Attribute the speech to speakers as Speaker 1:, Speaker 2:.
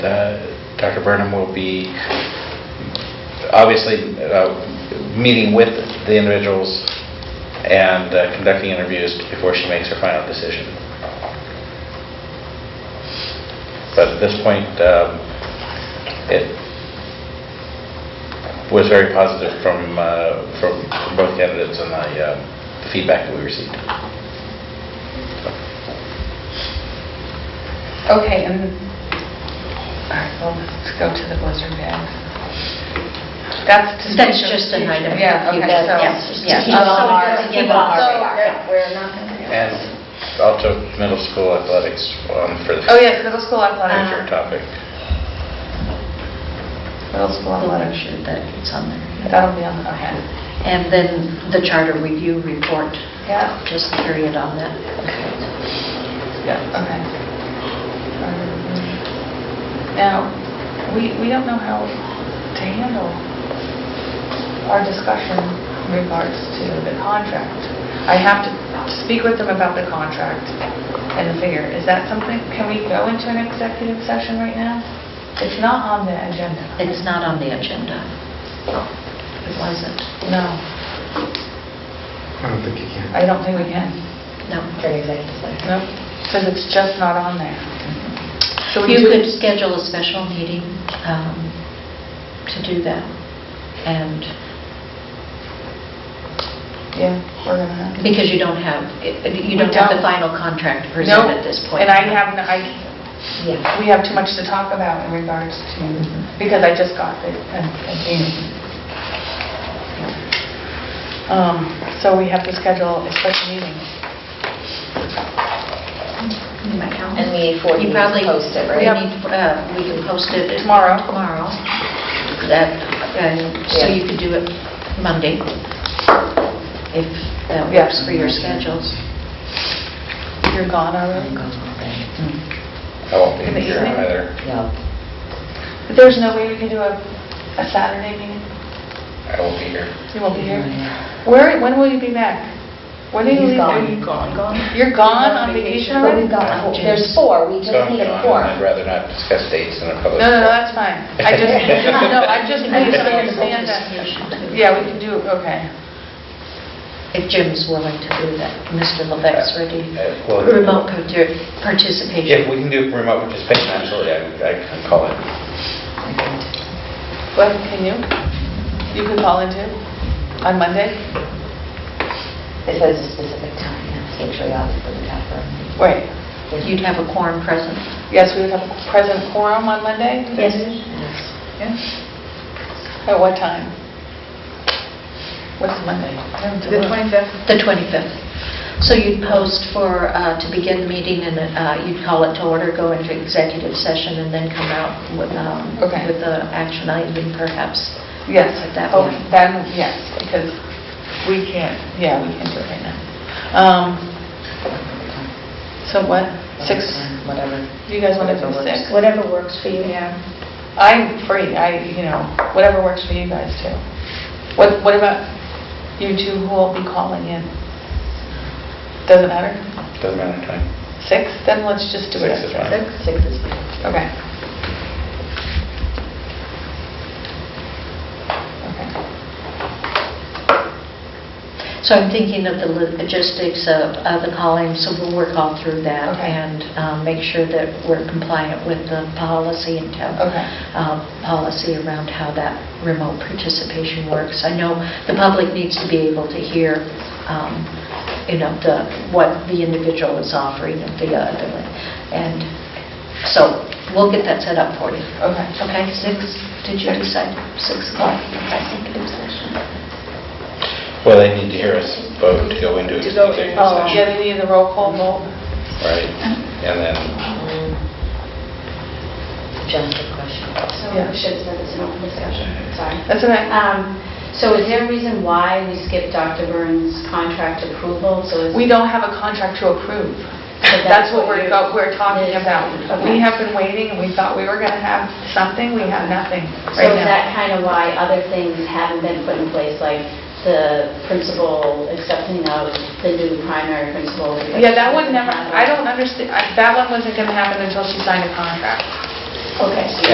Speaker 1: Uh, Dr. Burnham will be, obviously, uh, meeting with the individuals and uh, conducting interviews before she makes her final decision. But at this point, um, it was very positive from, uh, from from both candidates and the uh, the feedback that we received.
Speaker 2: Okay, and, all right, well, let's go to the blizzard bags. That's to...
Speaker 3: That's just an item.
Speaker 2: Yeah, okay,
Speaker 3: That-
Speaker 2: so...
Speaker 3: yes, just to
Speaker 2: Yeah,
Speaker 3: keep on
Speaker 2: so-
Speaker 3: our-
Speaker 2: so-
Speaker 3: keep on our
Speaker 2: so-
Speaker 3: radar, yeah.
Speaker 4: We're not going to do
Speaker 1: And also middle school athletics um, for the
Speaker 2: Oh, yes, middle school
Speaker 3: Uh,
Speaker 1: future
Speaker 2: athletics.
Speaker 1: topic.
Speaker 2: Middle school
Speaker 3: I'll let her
Speaker 2: athletics.
Speaker 3: shoot that it's on there.
Speaker 2: That'll be on, okay.
Speaker 3: And then the charter review report,
Speaker 2: Yeah,
Speaker 3: just period on that.
Speaker 2: yeah, okay. Now, we, we don't know how to handle our discussion in regards to the contract. I have to speak with them about the contract and figure, is that something, can we go into an executive session right now? It's not on the agenda.
Speaker 3: It's not on the agenda.
Speaker 2: Oh.
Speaker 3: It wasn't.
Speaker 2: No,
Speaker 5: I don't think you can.
Speaker 2: I don't think we can.
Speaker 3: No.
Speaker 4: an executive session.
Speaker 2: No, because it's just not on there. So we
Speaker 3: You
Speaker 2: do-
Speaker 3: could schedule a special meeting um, to do that. And
Speaker 2: Yeah, we're gonna have. to.
Speaker 3: because you don't have, you
Speaker 2: We
Speaker 3: don't have
Speaker 2: don't.
Speaker 3: the final contract presented at this
Speaker 2: Nope,
Speaker 3: point.
Speaker 2: And I haven't, I,
Speaker 4: Yeah.
Speaker 2: we have too much to talk about in regards to, because I just got it. and- and Jamie. Um, So we have to schedule a special meeting.
Speaker 3: In my calendar.
Speaker 4: And we need 40
Speaker 3: You
Speaker 4: days to
Speaker 3: probably-
Speaker 4: post it, right?
Speaker 3: we need, uh, We can post it.
Speaker 2: Tomorrow.
Speaker 3: Tomorrow. That, and so
Speaker 4: Yeah.
Speaker 3: you could do it Monday, if that
Speaker 2: Yeah.
Speaker 3: works for your schedules.
Speaker 2: You're gone already?
Speaker 1: I won't be
Speaker 2: In the
Speaker 1: here
Speaker 2: evening?
Speaker 1: either.
Speaker 4: No.
Speaker 2: But There's no way we can do a, a Saturday meeting?
Speaker 1: I won't be here.
Speaker 2: You won't be here? Where, when will you be back? When are you
Speaker 4: He's
Speaker 2: leaving?
Speaker 4: gone.
Speaker 2: gone, gone? You're gone on vacation
Speaker 4: But
Speaker 2: already?
Speaker 4: we've got, there's four, we just
Speaker 1: So I'm
Speaker 4: need a
Speaker 1: gone,
Speaker 4: four.
Speaker 1: and I'd rather not discuss dates in a public.
Speaker 2: No, no, no,
Speaker 1: forum.
Speaker 2: that's fine. I just, no, I just need to understand that. Yeah, we can do, okay.
Speaker 3: If Jim's willing to do that, Mr. Levesque's ready.
Speaker 1: Uh, well-
Speaker 3: Remote parti-
Speaker 1: If
Speaker 3: participation.
Speaker 1: we can do remote participation, absolutely, I I can call it.
Speaker 2: Well, can you? You can call in too, on Monday?
Speaker 4: It says a specific time, that's usually off for the bathroom.
Speaker 2: Right.
Speaker 3: You'd have a quorum present.
Speaker 2: Yes, we would have a present quorum on Monday?
Speaker 3: Yes.
Speaker 2: At what time? What's Monday?
Speaker 6: The 25th,
Speaker 3: The 25th. So you'd post for, uh, to begin meeting, and uh, you'd call it to order, go into executive session, and then come out with um,
Speaker 2: Okay.
Speaker 3: with the action item perhaps.
Speaker 2: Yes,
Speaker 3: At that
Speaker 2: oh,
Speaker 3: point.
Speaker 2: then, yes, because we can't, yeah, we can do it right now. Um, So what, six,
Speaker 4: Whatever.
Speaker 2: you guys want to do
Speaker 4: Whatever
Speaker 2: six?
Speaker 6: whatever works for you. Yeah.
Speaker 2: I'm free, I, you know, whatever works for you guys too. What, what about you two who will be calling in? Doesn't matter?
Speaker 1: Doesn't matter time.
Speaker 2: Six, then let's just do it.
Speaker 1: Six is
Speaker 2: at
Speaker 1: fine.
Speaker 4: Six is fine.
Speaker 2: Okay. Okay.
Speaker 3: So I'm thinking of the logistics of of the calling, so we'll work all through that
Speaker 2: Okay.
Speaker 3: and um, make sure that we're compliant with the policy and town
Speaker 2: Okay.
Speaker 3: um, policy around how that remote participation works. I know the public needs to be able to hear, um, you know, the, what the individual is offering and the other. And so we'll get that set up for you.
Speaker 2: Okay.
Speaker 3: Okay, six, did you decide? Six o'clock? Executive session.
Speaker 1: Well, they need to hear us vote to go into
Speaker 6: To go in.
Speaker 1: executive
Speaker 2: Oh,
Speaker 1: session.
Speaker 2: yeah, they need the roll call vote.
Speaker 1: Right, and then,
Speaker 4: Um, Just a question.
Speaker 7: So
Speaker 2: Yeah.
Speaker 7: we should have said this in open discussion, sorry.
Speaker 2: That's all right.
Speaker 7: Um, So is there a reason why we skipped Dr. Burns' contract approval? So is
Speaker 2: We don't have a contract to approve. That's
Speaker 7: But that's
Speaker 2: what
Speaker 7: what
Speaker 2: we're,
Speaker 7: you-
Speaker 2: go- we're talking
Speaker 7: Yes.
Speaker 2: about.
Speaker 7: Okay.
Speaker 2: We have been waiting, and we thought we were going to have something, we have nothing
Speaker 7: So
Speaker 2: right
Speaker 7: is
Speaker 2: now.
Speaker 7: that kind of why other things haven't been put in place, like the principal accepting of the new primary principal?
Speaker 2: Yeah, that would never, I don't understand, that one wasn't going to happen until she signed a contract.
Speaker 7: Okay.